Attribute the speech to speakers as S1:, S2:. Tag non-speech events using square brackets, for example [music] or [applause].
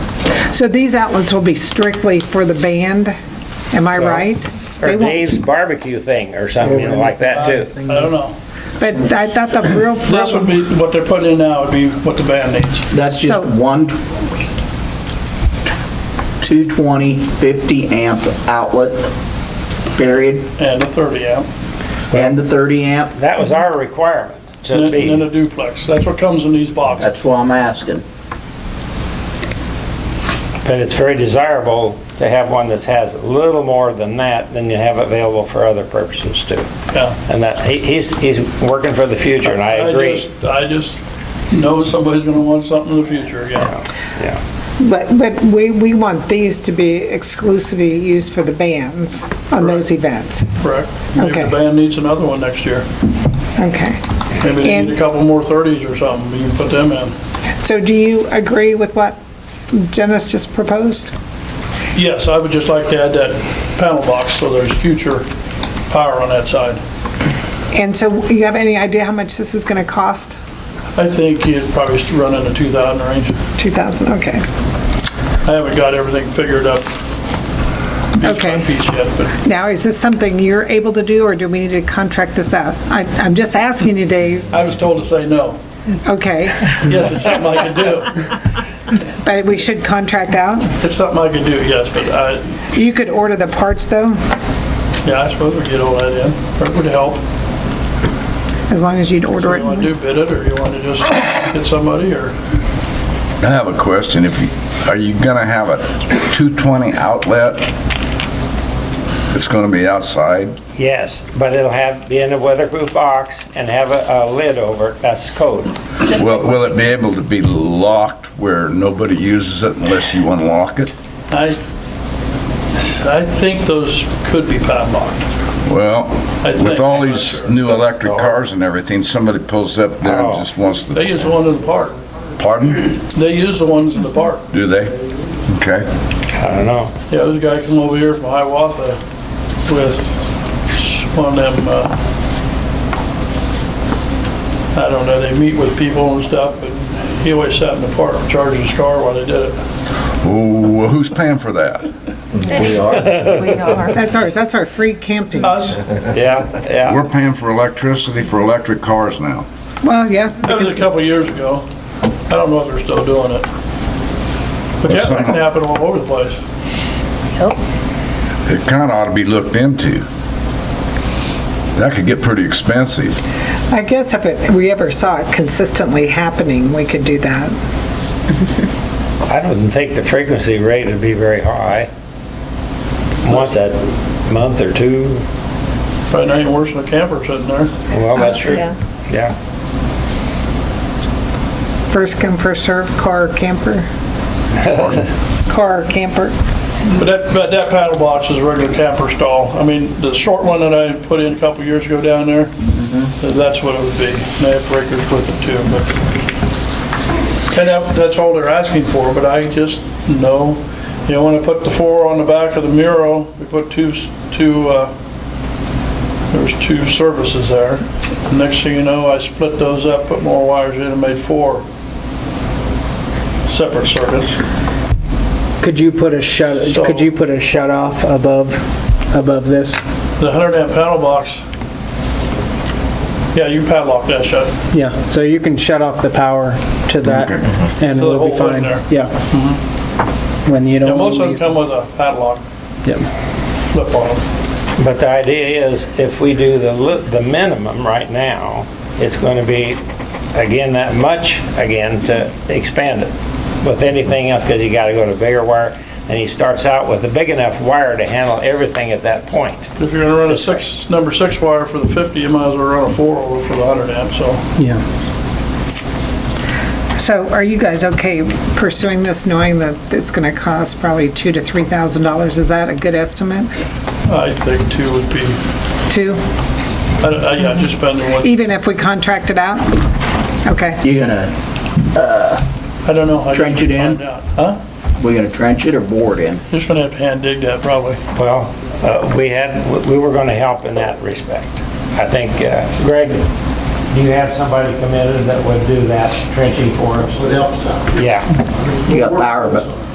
S1: So these outlets will be strictly for the band, am I right? They
S2: Or
S1: won't-
S2: Dave's barbecue thing or something, you know, like that too.
S3: I don't know.
S1: But I thought the real
S3: This would
S1: problem,
S3: be, what they're putting in now would be what the band needs.
S4: That's just
S1: So-
S4: one, tw- 220, 50 amp outlet, period,
S3: And a 30 amp,
S4: and the 30 amp.
S2: That was our requirement to
S3: and then- and then
S2: be,
S3: a duplex. That's what comes in these boxes.
S4: That's what I'm asking.
S2: but it's very desirable to have one that has a little more than that than you have available for other purposes too.
S3: Yeah.
S2: And that, he- he's, he's working for the future and I agree.
S3: just- I just know somebody's gonna want something in the future, yeah.
S2: Yeah.
S1: but, but we, we want these to be exclusively used for the bands on those events.
S3: Correct. Maybe
S1: Okay.
S3: the band needs another one next year.
S1: Okay.
S3: Maybe they need
S1: And-
S3: a couple more 30s or something, you can put them in.
S1: So do you agree with what Janice just proposed?
S3: Yes, I would just like to add that panel box, so there's future power on that side.
S1: And so you have any idea how much this is going to cost?
S3: I think you'd probably st- run in the 2,000 range.
S1: 2,000, okay.
S3: I haven't got everything figured up piece by
S1: Okay.
S3: piece yet, but
S1: Now, is this something you're able to do, or do we need to contract this out? I- I'm just asking you, Dave.
S3: I was told to say no.
S1: Okay,
S3: Yes, it's something I could do.
S1: but we should contract out?
S3: It's something I could do, yes, but I,
S1: You could order the parts, though,
S3: yeah, I suppose we get all that in. That would help.
S1: as long as you'd order
S3: You want
S1: it.
S3: to do bid it, or you want to just get somebody, or?
S5: I have a question. If, you- are you gonna have a 220 outlet? It's gonna be outside?
S2: Yes, but it'll have, be in a weatherproof box and have a, a lid over it. That's code.
S5: Will, will it be able to be locked where nobody uses it unless you unlock it?
S3: I, I think those could be padlocked.
S5: Well,
S3: I think-
S5: with all
S3: I'm not
S5: these
S3: sure. Oh.
S5: new electric cars and everything, somebody pulls up there and just wants
S3: They
S5: to,
S3: use the one in the park.
S5: pardon?
S3: They use the ones in the park.
S5: Do they? Okay.
S2: I don't know.
S3: Yeah, this guy came over here from Hiawatha with one of them, uh, I don't know, they meet with people and stuff, but he always sat in the park and charged his car while they did it.
S5: Ooh, well, who's paying for that?
S6: We are.
S1: That's ours, that's our free camping.
S3: Us,
S2: Yeah,
S3: Uh,
S2: yeah.
S5: We're paying for electricity for electric cars now.
S1: Well, yeah,
S3: that was a couple of years ago. I don't know if they're still doing it. But yeah, that can happen all over the place.
S5: It kinda ought to be looked into. That could get pretty expensive.
S1: I guess if it- we ever saw it consistently happening, we could do that.
S2: I don't think the frequency rate would be very high. Once a month or two.
S3: Probably not even worse than a camper sitting there.
S2: Well, that's true.
S6: Yeah.
S2: Yeah.
S1: First come, first served, car or
S3: [laughs]
S1: camper? Car or camper?
S3: But that, but that paddle box is a regular camper stall. I mean, the short one that I put in a couple years ago down there, that's what it would be. And They have breakers with it too, but. And that, that's all they're asking for, but I just know, you know, when I put the four on the back of the mural, we put two, s- two, uh, there's two services there. Next thing you know, I split those up, put more wires in and made four separate circuits.
S7: Could you put a shut,
S3: So-
S7: could you put a shut off above, above this?
S3: The hundred amp paddle box. Yeah, you padlock that shut.
S7: Yeah, so you can shut off the power to that and
S3: So the
S7: it'll be
S3: whole thing
S7: fine.
S3: there. Mm-hmm.
S7: Yeah. When you
S3: Yeah,
S7: don't.
S3: most of them
S7: use it.
S3: come with a padlock
S7: Yep.
S3: flip on them.
S2: But the idea is if we do the, li- the minimum right now, it's going to be, again, that much, again, to expand it with anything else because you got to go to bigger wire. And he starts out with a big enough wire to handle everything at that point.
S3: If you're gonna run a six, number six wire for the fifty, you might as well run a four over for the hundred amp, so.
S7: Yeah.
S1: So are you guys okay pursuing this, knowing that it's going to cost probably two to $3,000? Is that a good estimate?
S3: I think two would be,
S1: Two,
S3: I, I, yeah, just spend the one,
S1: even if we contract it out? Okay,
S4: You gonna,
S3: I don't know. I guess
S4: Trench it
S3: we'd
S4: in?
S3: find out. Huh?
S4: we gonna trench it or board in?
S3: Just gonna have to hand dig that probably.
S2: Well, uh, we had, we were going to help in that respect. I think, uh, Greg, do you have somebody committed that would do that trenching for us? Would help us out. Yeah.
S4: You got power, but